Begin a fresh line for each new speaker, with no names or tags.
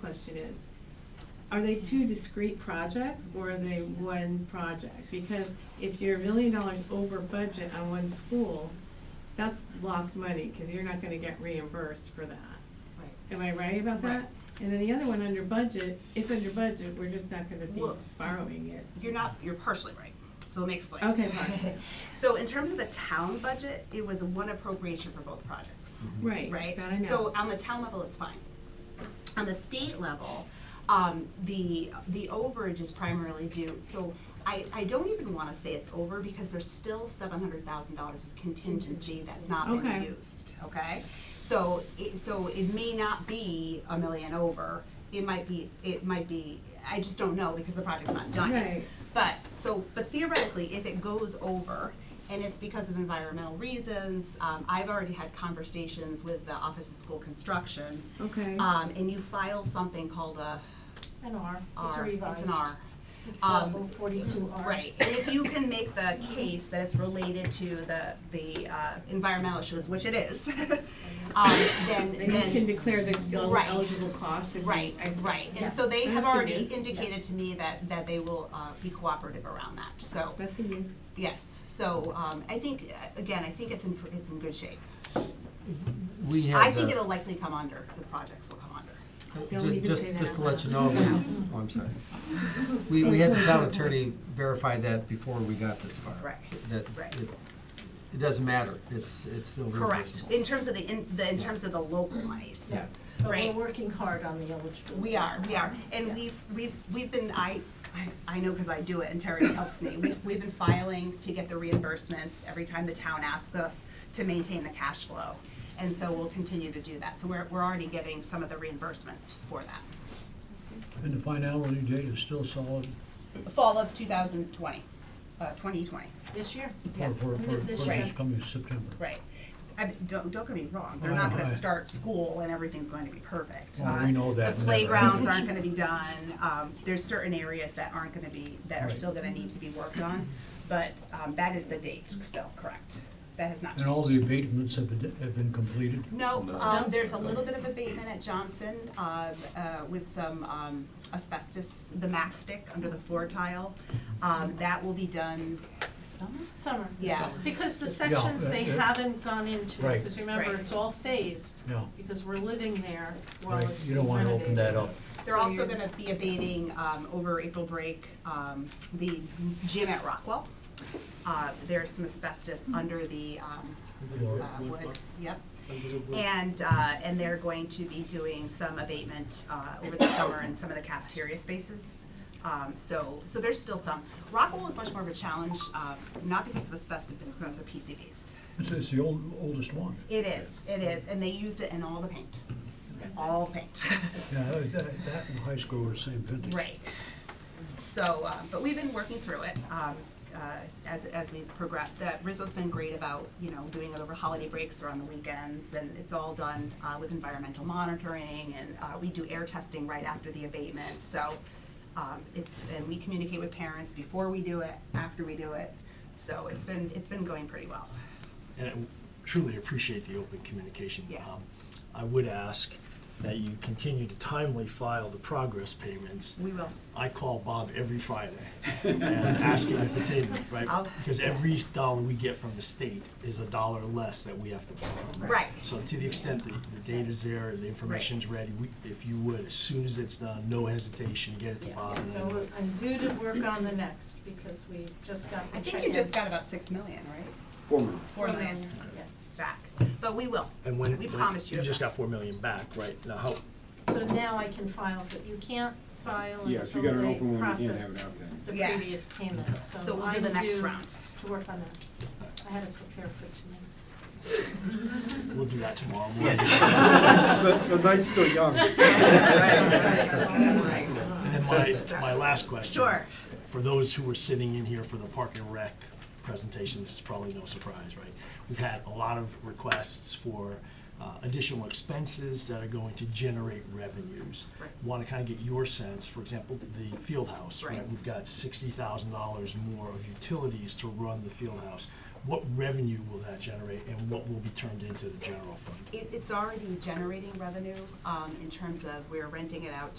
question is, are they two discrete projects or are they one project? Because if you're a million dollars over budget on one school, that's lost money, cause you're not gonna get reimbursed for that.
Right.
Am I right about
Right.
that? And then the other one, under budget, it's under budget, we're just not gonna be
Well-
borrowing it.
You're not, you're partially right. So let me explain.
Okay, partially.
So in terms of the town budget, it was one appropriation for both projects,
Right,
right?
Mm-hmm. that I know.
So on the town level, it's fine. On the state level, um, the, the overage is primarily due, so I, I don't even wanna say it's over because there's still seven hundred thousand dollars of contingency that's not been
Okay.
used, okay? So it, so it may not be a million over, it might be, it might be, I just don't know because the project's not done yet.
Right.
But, so, but theoretically, if it goes over, and it's because of environmental reasons, um, I've already had conversations with the Office of School Construction.
Okay.
Um, and you file something called a
An R, it's a
R,
revised.
it's an R.
It's uh,
Um,
042R.
Right, and if you can make the case that it's related to the, the, uh, environmental issues, which it is, um,
Then
then,
you can
then,
declare the el-
Right.
eligible costs and.
right,
ex-
right. And so
Yes.
they have
That's good
already
news.
indicated
Yes.
to me that, that they will, uh, be cooperative around that, so.
That's good news.
Yes, so, um, I think, uh, again, I think it's in, pr- it's in good shape.
We had.
I think
uh,
it'll likely come under, the projects will come under.
Don't
Just-
even
just-
say that
Just to
out
let you know,
loud.
we- oh, I'm sorry. We, we had the town attorney verify that before we got this far.
Right,
That
right.
it- It doesn't matter, it's, it's still
Correct,
reimbursable.
in terms of the, in, the, in terms of the local monies.
Yeah.
But
Right.
we're working hard on the eligibility.
We are, we are, and
Yeah.
we've, we've, we've been, I, I- I know because I do it and Terry helps me, we've, we've been filing to get the reimbursements every time the town asks us to maintain the cash flow. And so we'll continue to do that, so we're, we're already getting some of the reimbursements for that.
And the finality date is still solid
Fall of two thousand twenty, uh, twenty twenty.
This year.
Yeah.
for, for, for,
This
for this
year.
coming September.
Right. I, don't, don't get me wrong, they're not gonna
Oh, Right.
start school and everything's going to be perfect.
Well, we
Uh,
know that
The
never
playgrounds
happens.
aren't gonna be done, um, there's certain areas that aren't gonna be, that are
Right.
still gonna need to be worked on, but, um, that is the date still, correct? That has not
And all the
changed.
abatements have been, have been completed.
No,
No.
um, there's a little bit of abatement at Johnson, uh, uh, with some, um, asbestos, the mastic under the floor tile. Um, that will be done summer?
Summer.
Yeah.
Because the sections
uh,
they
uh,
haven't gone into,
Right.
because remember,
Right.
it's all phased,
No,
because we're living there while
right,
it's
you don't wanna open that
renovated.
up.
They're
So
also
you're-
gonna be abating, um, over April break, um, the gym at Rockwell. Uh, there's some asbestos under the, um,
Or-
uh, wood, yep. And, uh, and they're going to be doing some abatement, uh, over the summer in some of the cafeteria spaces. Um, so, so there's still some. Rockwell is much more of a challenge, um, not because of asbestos, but because of PCBs.
It's, it's the old, oldest one.
It is, it is, and they used it in all the paint, all paint.
Yeah, that, that that and high school are the same vintage.
Right. So, uh, but we've been working through it, um, uh, as, as we progress. That Rizzo's been great about, you know, doing it over holiday breaks or on the weekends, and it's all done, uh, with environmental monitoring, and, uh, we do air testing right after the abatement, so, um, it's, and we communicate with parents before we do it, after we do it, so it's been, it's been going pretty well.
and I truly appreciate the open communication.
Yeah.
Um, I would ask that you continue to timely file the progress payments.
We will.
I call Bob every Friday and ask him if it's in, right?
I'll-
Because every dollar we get from the state is a dollar less that we have to borrow.
Right.
So to the extent that the data's there and the information's ready, we, if you would, as soon as it's done, no hesitation, get it to
Yeah,
Bob. and
so
then-
we're- I'm due to work on the next, because we just got the
I
check
think you just
in.
got about six million, right?
Four minutes.
Four million
Yeah.
back, but we will.
And when,
We
when-
promise you
You just
that.
got four million back, right? Now, how,
So now I can file, but you can't file
Yeah, if you got
until
an
they
open one, you can't
process
have it out there.
the
Yeah.
previous payment,
So
so
we'll do
I'm
the next
due
round.
to work on that. I had it prepared for tonight.
we'll do that tomorrow morning.
The, the night's still young.
And then my, my last question.
Sure.
For those who were sitting in here for the Park and Rec presentation, this is probably no surprise, right? We've had a lot of requests for uh, additional expenses that are going to generate revenues.
Right.
Want to kind of get your sense, for example, the field house, right?
Right.
We've got sixty thousand dollars more of utilities to run the field house. What revenue will that generate and what will be turned into the general fund?
It, it's already generating revenue, um, in terms of we're renting it out